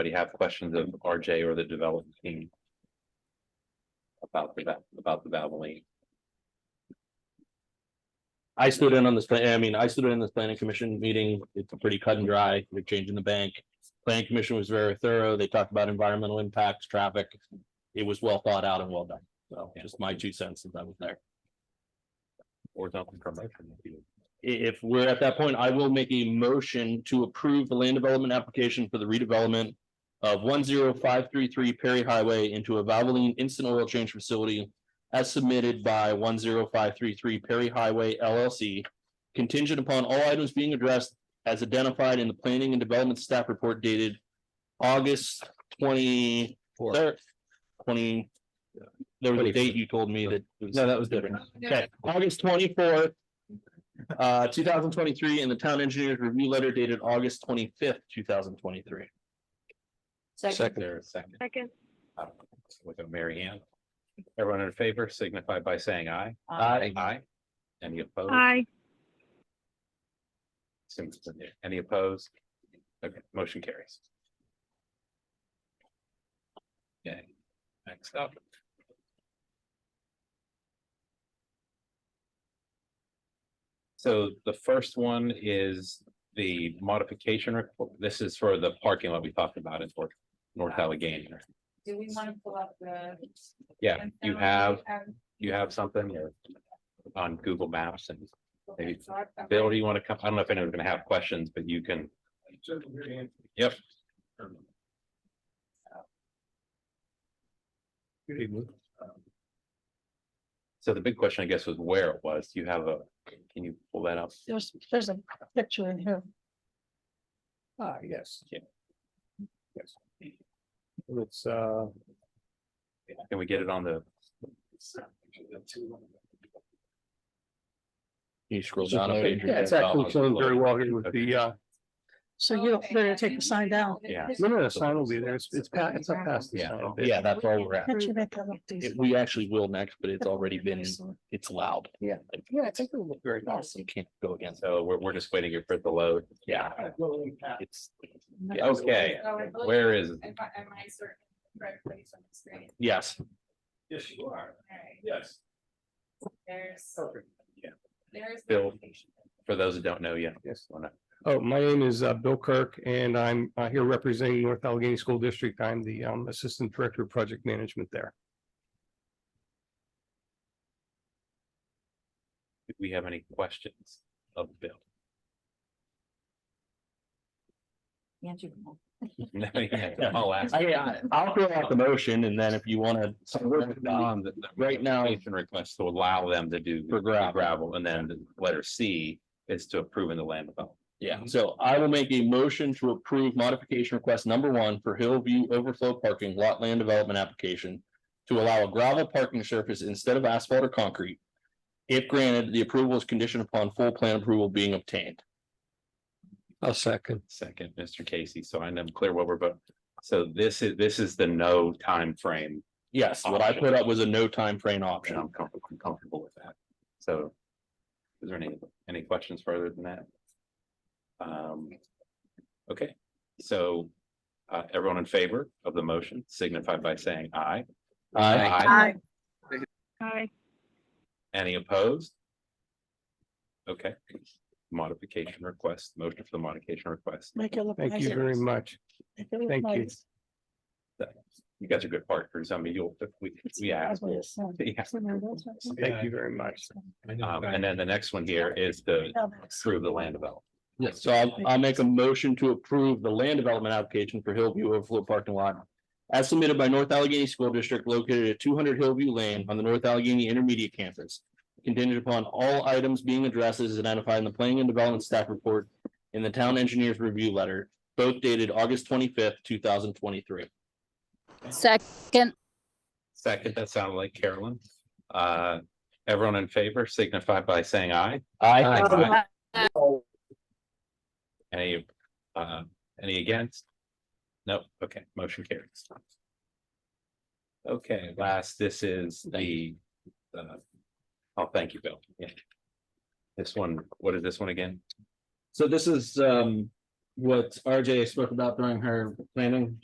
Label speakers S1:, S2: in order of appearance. S1: anybody have questions of RJ or the development team? About the, va- about the Valvoline?
S2: I stood in on this, I mean, I stood in this planning commission meeting, it's pretty cut and dry, they're changing the bank. Planning commission was very thorough, they talked about environmental impacts, traffic. It was well thought out and well done, so just my two cents since I was there.
S1: Or something from that?
S2: I- if we're at that point, I will make a motion to approve the land development application for the redevelopment. Of one zero five three three Perry Highway into a Valvoline Instant Oil Change Facility. As submitted by one zero five three three Perry Highway LLC. Contingent upon all items being addressed as identified in the Planning and Development Staff Report dated. August twenty third, twenty. There was a date you told me that. No, that was different. Okay, August twenty fourth uh, two thousand twenty-three and the town engineer's review letter dated August twenty-fifth, two thousand twenty-three.
S1: Second. There a second.
S3: Second.
S1: Uh, With a Mary Ann. Everyone in favor signify by saying aye.
S2: Aye.
S1: Aye. Any opposed?
S3: Aye.
S1: Simpson there. Any opposed? Okay, motion carries. Okay, next up. So the first one is the modification report. This is for the parking lot we talked about in North- North Allegheny.
S4: Do we want to pull up the?
S1: Yeah, you have, you have something or on Google Maps and maybe Bill, do you want to come? I don't know if anyone's gonna have questions, but you can. Yep.
S5: Good evening.
S1: So the big question, I guess, was where it was. Do you have a, can you pull that up?
S6: There's, there's a picture in here.
S5: Ah, yes.
S1: Yeah.
S5: Yes. It's, uh,
S1: Can we get it on the,
S2: You scroll down a page.
S5: yeah, it's actually showing very well here with the, uh,
S6: So you don't, better take the sign down.
S1: Yeah.
S5: no, no, the sign will be there. It's, it's past, it's up past the
S1: Yeah.
S5: sign.
S2: Yeah, that's where we're at.
S6: Can't you make that look
S2: It-
S6: decent?
S2: We actually will next, but it's already been,
S6: Excellent.
S2: it's loud.
S5: Yeah.
S2: Like,
S5: Yeah, I think it will look very
S2: yes, You can't go against, it.
S1: so we're, we're just waiting here for the load.
S2: yeah,
S5: nice.
S2: it's,
S1: Okay, where is,
S4: Am I am I certain correctly on the screen?
S2: yes,
S5: Yes, you are.
S4: Alright,
S5: Yes.
S4: There's,
S5: Perfect.
S4: there's. the
S1: Bill.
S4: location.
S1: for those that don't know yet?
S5: Yes.
S1: why not?
S5: Oh, my name is uh, Bill Kirk and I'm uh, here representing North Allegheny School District. I'm the um, Assistant Director of Project Management there.
S1: Do we have any questions of Bill? No, yeah, I'll ask.
S2: I, I- I'll throw out the motion and then if you wanna.
S1: So we're on the- the
S2: Um, Right now-
S1: modification Request to allow them to do.
S2: For gravel.
S1: Gravel, and then the letter C is to approve in the land development.
S2: Yeah, so I will make a motion to approve modification request number one for Hillview Overflow Parking Lot Land Development Application. To allow a gravel parking surface instead of asphalt or concrete. If granted, the approval is conditioned upon full plan approval being obtained.
S5: A second.
S1: Second, Mr. Casey, so I'm clear what we're, but, so this is, this is the no time frame.
S2: Yes, what I put up was a no time frame
S1: option. I'm
S2: option.
S1: comfortable, I'm comfortable with that. So. Is there any, any questions further than that? Um. Okay, so, uh, everyone in favor of the motion signify by saying aye.
S2: I,
S3: Aye. Aye.
S1: Any opposed? Okay, modification request, motion for the modification request.
S6: Make it look.
S5: Thank
S6: nice.
S5: you very much.
S6: Make it look
S5: Thank you.
S6: nice.
S1: You guys are good partners. I mean, you'll, we, yeah.
S6: That's what it sounds.
S1: Yeah.
S5: Thank you very much.
S1: Um, and then the next one here is the
S6: Now that's-
S1: approve the land development.
S2: yes, so I'll, I'll make a motion to approve the land development application for Hillview Overflow Parking Lot. As submitted by North Allegheny School District located at two hundred Hillview Lane on the North Allegheny Intermediate Campus. Contingent upon all items being addressed as identified in the Planning and Development Staff Report in the Town Engineers Review Letter, both dated August twenty-fifth, two thousand twenty-three.
S7: Second,
S1: Second, that sounded like Carolyn. Uh, everyone in favor signify by saying aye.
S2: Aye.
S1: Any, uh, any against? Nope, okay, motion carries. Okay, last, this is the, uh, oh, thank you, Bill. Yeah. This one, what is this one again?
S2: So this is, um, what RJ spoke about during her planning